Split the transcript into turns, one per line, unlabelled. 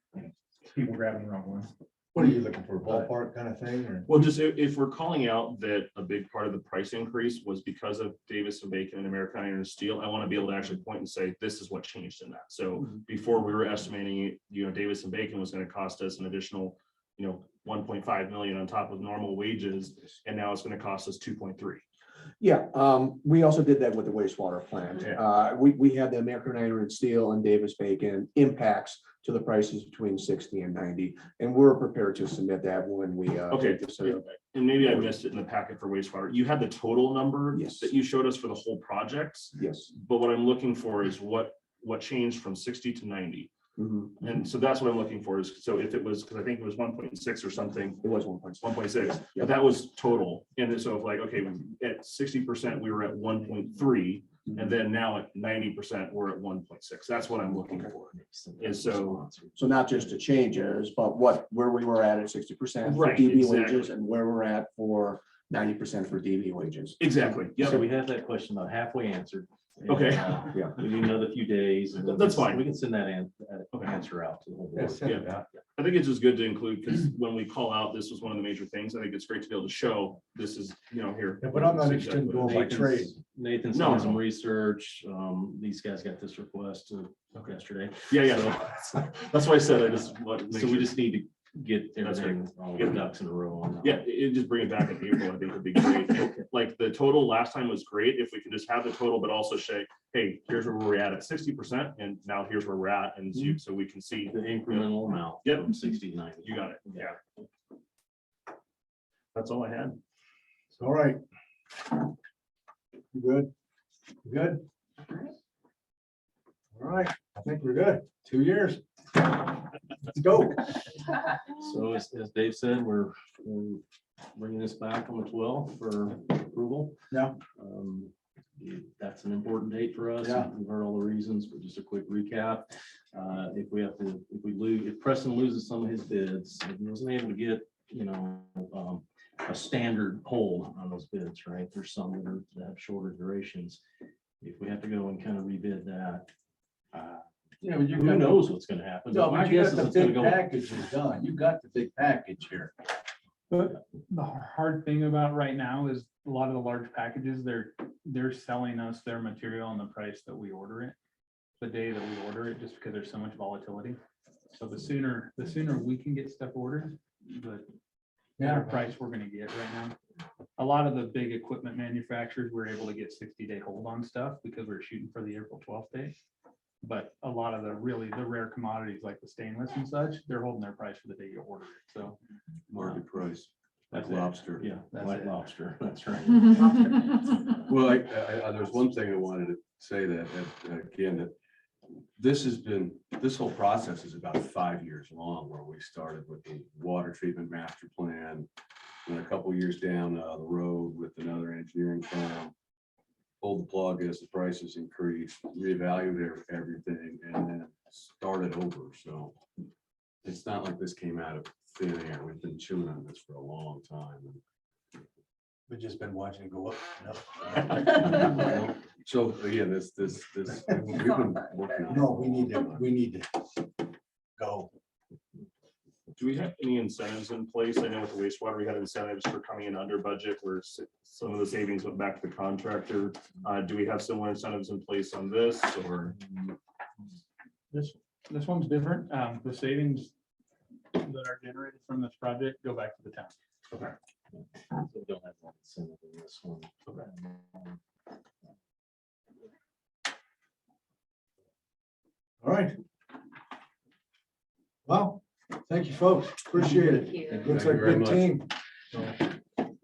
people grabbing the wrong ones.
What are you looking for, ballpark kind of thing, or?
Well, just if, if we're calling out that a big part of the price increase was because of Davis and Bacon and American Iron and Steel, I want to be able to actually point and say, this is what changed in that. So
Mm-hmm.
before we were estimating, you know, Davis and Bacon was going to cost us an additional, you know, one point five million on top of normal wages, and now it's going to cost us two point three.
Yeah, um, we also did that with the wastewater plant.
Yeah.
Uh, we, we had the American Iron and Steel and Davis Bacon impacts to the prices between sixty and ninety, and we're prepared to submit that when we. uh,
Okay.
take this, uh,
And maybe I missed it in the packet for wastewater. You had the total number
Yes.
that you showed us for the whole projects,
Yes.
but what I'm looking for is what, what changed from sixty to ninety?
Mhm.
And so that's what I'm looking for is, so if it was, because I think it was one point six or something,
It was one point.
one point six,
Yeah.
but that was total. And then so if like, okay, at sixty percent, we were at one point three.
Mm-hmm.
And then now at ninety percent, we're at one point six. That's what I'm looking for. And so,
So not just the changes, but what, where we were at at sixty percent for
Right,
DB wages
exactly.
and where we're at for ninety percent for DB wages.
exactly,
So
yeah,
we have that question about halfway answered.
Okay.
And, uh,
Yeah.
We need another few days. and then
That's
we can-
fine.
We can send that an- uh,
Okay.
answer out to the whole
Yeah,
board.
send it out.
I think it's just good to include, because when we call out, this was one of the major things. I think it's great to be able to show, this is, you know, here.
Yeah, but I'm not interested in going by
Nathan's-
trade.
Nathan's
No,
done
no.
some research. Um, these guys got this request uh,
Okay.
yesterday.
Yeah, yeah,
So
that's why I said I just. want to make
so we
sure.
just need to get
That's right.
everything, all the ducks in a row on that.
Yeah, it, it just bring it back in April, I think would be great. Like the total last time was great. If we could just have the total, but also say, hey, here's where we're at at sixty percent and now here's where we're at. And so, so we can see,
The incremental amount.
Yep.
From sixty to ninety.
you got it. Yeah. That's all I had.
All right. You Good, You good. All right, I think we're good, two years. Let's go.
So as, as Dave said, we're, we're bringing this back on the twelfth for approval.
Yeah.
Um, That's an important date for us.
Yeah.
We've heard all the reasons, but just a quick recap. Uh, If we have to, if we lose, if Preston loses some of his bids, if he wasn't able to get, you know, um, a standard hold on those bids, right? There's some that are- that have shorter durations. If we have to go and kind of rebid that, uh,
Yeah, but you
who
got, no,
knows what's gonna happen? but My
but you
guess
got
is
the
it's gonna
big
go.
package is done. You got the big package here.
The hard thing about right now is a lot of the large packages, they're, they're selling us their material on the price that we order it. The day that we order it, just because there's so much volatility. So the sooner, the sooner we can get stuff ordered, the better price we're gonna get right now. A lot of the big equipment manufacturers were able to get sixty day hold on stuff because we we're shooting for the April twelfth day. But a lot of the really, the rare commodities like the stainless and such, they're holding their price for the day you order it, so.
Market
price,
That's it.
lobster.
Yeah,
That's
white
it.
lobster, that's right.
Well, I, I, I- there's one thing I wanted to say that, that, uh, again, that this has been, this whole process is about five years long, where we started with the water treatment master plan. And a couple years down uh, the road with another engineering firm. Pulled the plug as the prices increased, reevaluated everything and then started over, so. It's not like this came out of thin air. We've been chewing on this for a long time.
We've just been watching it go up.
So, yeah, this, this, this. we've been working on it.
No, we need to, we need to go.
Do we have any incentives in place? I know with the wastewater, we had incentives for coming in under budget where s- some of the savings went back to the contractor. Uh, do we have similar incentives in place on this or?
This, this one's different. Um, the savings that are generated from this project go back to the town.
We don't have that incentive in this one. Um,
All right. Well, thank you, folks. Appreciate it.
Thank you.
Looks
Thank
like
you very
a good
much.
team.